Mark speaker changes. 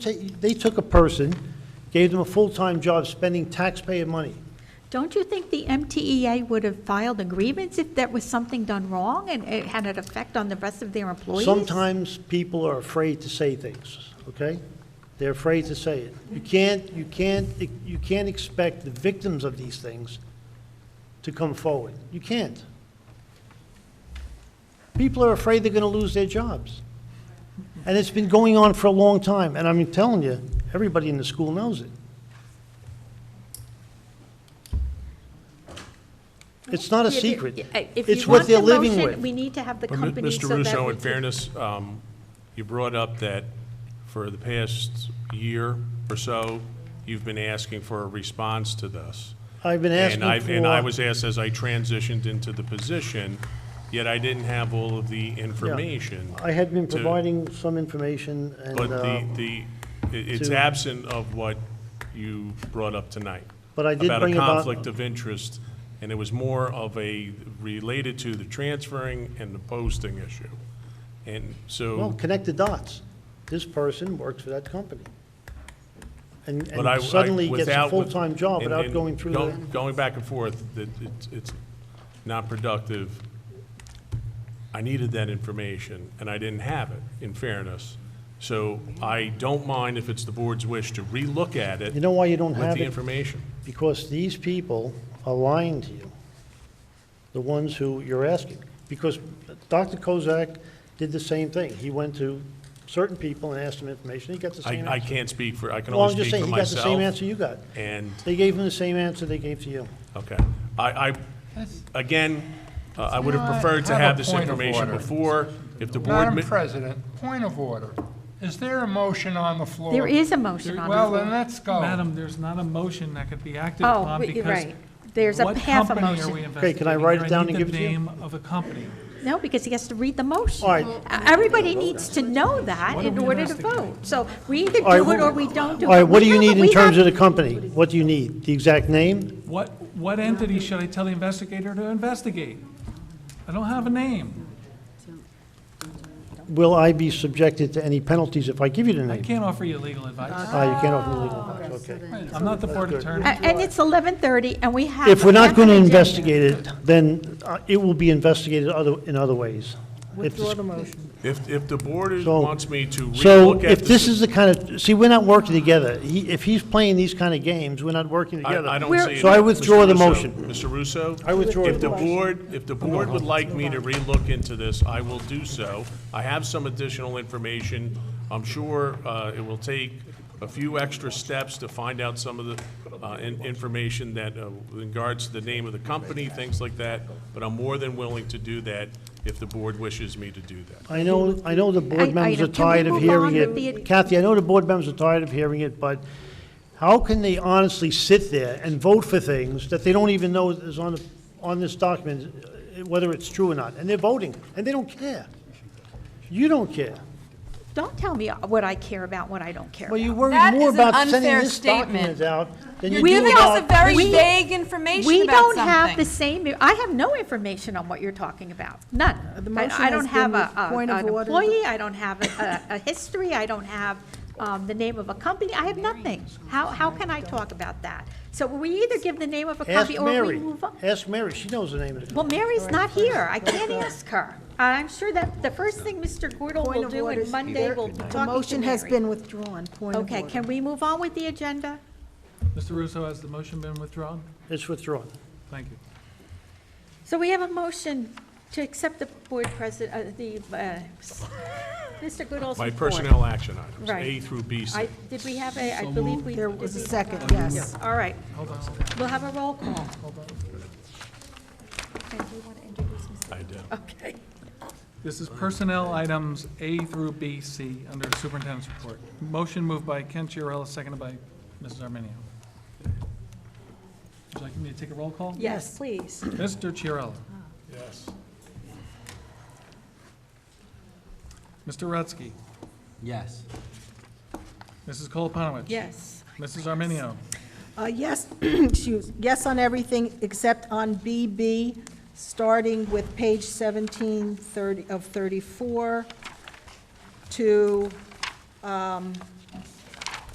Speaker 1: They took a person, gave them a full-time job, spending taxpayer money.
Speaker 2: Don't you think the MTEA would have filed a grievance if there was something done wrong and it had an effect on the rest of their employees?
Speaker 1: Sometimes people are afraid to say things, okay? They're afraid to say it. You can't, you can't, you can't expect the victims of these things to come forward. You can't. People are afraid they're going to lose their jobs. And it's been going on for a long time, and I'm telling you, everybody in the school knows it. It's not a
Speaker 2: Yeah, the-
Speaker 1: secret.
Speaker 2: yeah, If
Speaker 1: It's
Speaker 2: you
Speaker 1: what
Speaker 2: want
Speaker 1: they're
Speaker 2: the
Speaker 1: living with.
Speaker 2: motion, we need to have the
Speaker 3: But Mi-
Speaker 2: company so
Speaker 3: Mr.
Speaker 2: that.
Speaker 3: Russo,
Speaker 2: we
Speaker 3: in
Speaker 2: can-
Speaker 3: fairness, um, you brought up that for the past year or so, you've been asking for a response to this.
Speaker 1: I've been asking
Speaker 3: And I, and I
Speaker 1: for-
Speaker 3: was asked as I transitioned into the position, yet I didn't have all of the information.
Speaker 1: I had been
Speaker 3: to-
Speaker 1: providing some information, and,
Speaker 3: But
Speaker 1: uh,
Speaker 3: the, the, it- it's
Speaker 1: to-
Speaker 3: absent of what you brought up tonight.
Speaker 1: But I did bring
Speaker 3: About a
Speaker 1: about-
Speaker 3: conflict of interest, and it was more of a, related to the transferring and the posting issue. And
Speaker 1: well,
Speaker 3: so,
Speaker 1: connect the dots. This person works for that company. And
Speaker 3: but I. I-
Speaker 1: and suddenly gets
Speaker 3: without-
Speaker 1: a full-time job
Speaker 3: and-
Speaker 1: without
Speaker 3: and
Speaker 1: going through
Speaker 3: go-
Speaker 1: the,
Speaker 3: Going back and forth, that it's, it's not productive. I needed that information, and I didn't have it, in fairness. So I don't mind if it's the board's wish to relook at it.
Speaker 1: you know why you don't
Speaker 3: with
Speaker 1: have
Speaker 3: the
Speaker 1: it?
Speaker 3: information.
Speaker 1: Because these people are lying to you, the ones who you're asking. Because Dr. Kozak did the same thing. He went to certain people and asked them information, he got the
Speaker 3: I,
Speaker 1: same
Speaker 3: I
Speaker 1: answer.
Speaker 3: can't speak for, I can
Speaker 1: Well, I'm
Speaker 3: only
Speaker 1: just
Speaker 3: speak
Speaker 1: saying,
Speaker 3: for
Speaker 1: he got the same
Speaker 3: myself.
Speaker 1: answer you got.
Speaker 3: And,
Speaker 1: They gave him the same answer they gave to you.
Speaker 3: okay, I, I, again, uh, I would have preferred to
Speaker 4: Have a
Speaker 3: have this
Speaker 4: point of
Speaker 3: information
Speaker 4: order.
Speaker 3: before. If the board,
Speaker 4: Madam
Speaker 3: mi-
Speaker 4: President, point of order. Is there a motion on the floor?
Speaker 2: There is a motion on the
Speaker 4: Well, then
Speaker 2: floor.
Speaker 4: let's go.
Speaker 5: Madam, there's not a motion that could be acted
Speaker 2: Oh,
Speaker 5: upon
Speaker 2: but you're
Speaker 5: because.
Speaker 2: right. There's a half a
Speaker 5: What company are we
Speaker 2: motion.
Speaker 5: investigating?
Speaker 1: Okay, can I write it
Speaker 5: here?
Speaker 1: down
Speaker 5: need
Speaker 1: and give it to you?
Speaker 5: the name of a company.
Speaker 2: No, because he has to read the motion. E,
Speaker 1: All right.
Speaker 2: Everybody needs to know that
Speaker 5: What are
Speaker 2: in
Speaker 5: we
Speaker 2: order to
Speaker 5: investigating?
Speaker 2: vote. So we either
Speaker 1: All right,
Speaker 2: do it
Speaker 1: who-
Speaker 2: or we don't do it.
Speaker 1: All right, what do
Speaker 2: We
Speaker 1: you
Speaker 2: know
Speaker 1: need
Speaker 2: that
Speaker 1: in
Speaker 2: we
Speaker 1: terms of
Speaker 2: have-
Speaker 1: the company? What do you need? The exact name?
Speaker 5: What, what entity should I tell the investigator to investigate? I don't have a name.
Speaker 1: Will I be subjected to any penalties if I give you the
Speaker 5: I
Speaker 1: name?
Speaker 5: can't offer you legal advice.
Speaker 1: Ah, you can't offer me legal advice, okay.
Speaker 5: I'm not the board attorney.
Speaker 2: A- And it's 11:30 and we have.
Speaker 1: If we're
Speaker 2: a
Speaker 1: not
Speaker 2: half
Speaker 1: going to
Speaker 2: an agenda.
Speaker 1: investigate it, then uh, it will be investigated other, in other ways. If this-
Speaker 3: if, if the board is-
Speaker 1: So-
Speaker 3: wants me to
Speaker 1: So
Speaker 3: relook at
Speaker 1: if this
Speaker 3: this,
Speaker 1: is the kind of, see, we're not working together. He- If he's playing these kind of games, we're not working
Speaker 3: I,
Speaker 1: together.
Speaker 3: I don't
Speaker 2: We're-
Speaker 3: see. it.
Speaker 1: So I
Speaker 3: Mr.
Speaker 1: withdraw the
Speaker 3: Russo-
Speaker 1: motion.
Speaker 3: Mr. Russo?
Speaker 1: I withdraw
Speaker 3: If
Speaker 1: the
Speaker 3: the board, if the board would like me to relook into this, I will do so. I have some additional information. I'm sure uh, it will take a few extra steps to find out some of the uh, in- information that uh, in regards to the name of the company, things like that, but I'm more than willing to do that if the board wishes me to do that.
Speaker 1: I know, I know the
Speaker 2: I- I
Speaker 1: board members
Speaker 2: know.
Speaker 1: are
Speaker 2: Can we
Speaker 1: tired of
Speaker 2: move
Speaker 1: hearing
Speaker 2: on with the-
Speaker 1: it. Kathy, I know the board members are tired of hearing it, but how can they honestly sit there and vote for things that they don't even know is on, the- on this document, uh, whether it's true or not? And they're voting, and they don't care. You don't care.
Speaker 2: Don't tell me what I care about, what I don't care
Speaker 1: Well,
Speaker 2: about.
Speaker 1: you worry
Speaker 6: That
Speaker 1: more
Speaker 6: is an
Speaker 1: about sending
Speaker 6: unfair
Speaker 1: this
Speaker 6: statement.
Speaker 1: document out than you
Speaker 6: You're
Speaker 1: do
Speaker 6: giving us a
Speaker 1: about...
Speaker 6: very
Speaker 2: We-
Speaker 6: vague information
Speaker 2: We
Speaker 6: about
Speaker 2: don't have the
Speaker 6: something.
Speaker 2: same, I have no information on what you're talking about, none.
Speaker 7: Uh, The
Speaker 2: I-
Speaker 7: motion
Speaker 2: I don't
Speaker 7: has
Speaker 2: have
Speaker 7: been
Speaker 2: a- a-
Speaker 7: point of
Speaker 2: an
Speaker 7: order.
Speaker 2: employee, I don't have a- a a history, I don't have um, the name of a company, I have nothing. How, how can I talk about that? So we either give the name of a
Speaker 1: Ask
Speaker 2: company or we
Speaker 1: Mary.
Speaker 2: move on.
Speaker 1: Ask Mary, she knows the name of the
Speaker 2: Well,
Speaker 1: company.
Speaker 2: Mary's not here, I can't ask her. I'm sure that the first thing Mr. Gordo will do on Monday will be talking to
Speaker 7: The motion has
Speaker 2: Mary.
Speaker 7: been withdrawn, point of order.
Speaker 2: Okay, can we move on with the agenda?
Speaker 5: Mr. Russo, has the motion been withdrawn?
Speaker 1: It's withdrawn.
Speaker 5: Thank you.
Speaker 2: So we have a motion to accept the board president, the, uh, Mr. Goodall's report.
Speaker 3: My personnel action items, A
Speaker 2: Right.
Speaker 3: through B.
Speaker 2: I, did we have a, I believe we.
Speaker 7: There
Speaker 2: did
Speaker 7: was a
Speaker 2: we-
Speaker 7: second, yes.
Speaker 2: All right. We'll have a roll call. And do you want to introduce Mr.?
Speaker 3: I do.
Speaker 2: Okay.
Speaker 5: This is personnel items A through B, C, under superintendent's report. Motion moved by Ken Chiarella, seconded by Mrs. Arminio. Would you like me to take a roll call?
Speaker 2: Yes, please.
Speaker 5: Mr. Chiarella.
Speaker 3: Yes.
Speaker 5: Mr. Rutsky.
Speaker 8: Yes.
Speaker 5: Mrs. Koloponowicz.
Speaker 2: Yes.
Speaker 5: Mrs. Arminio.
Speaker 7: Uh, yes, excuse, yes on everything except on BB, starting with page 17 30 of 34 to um,